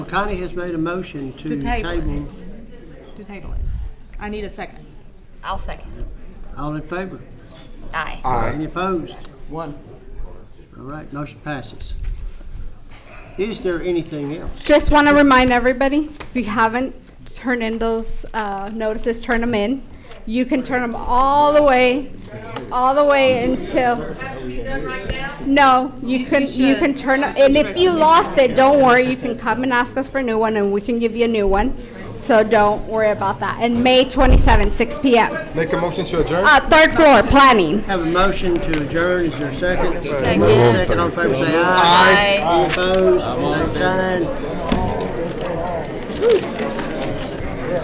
Connie has made a motion to To table it. table. to table it. I need a second. I'll second. All in favor? Aye. Any opposed? One. All right, motion passes. Is there anything else? Just want to remind everybody, if you haven't turned in those uh, notices, turn them in. You can turn them all the way, all the way until. No, you can, you can turn, 'em- and if you lost it, don't worry, you can come and ask us for a new one, and we can give you a new one. So don't worry about that. And May 27, 6 PM. Make a motion to adjourn? Uh, Third floor, planning. Have a motion to adjourn, is there a second? Second. Second, all in favor, say aye. Aye. Any opposed? Same sign.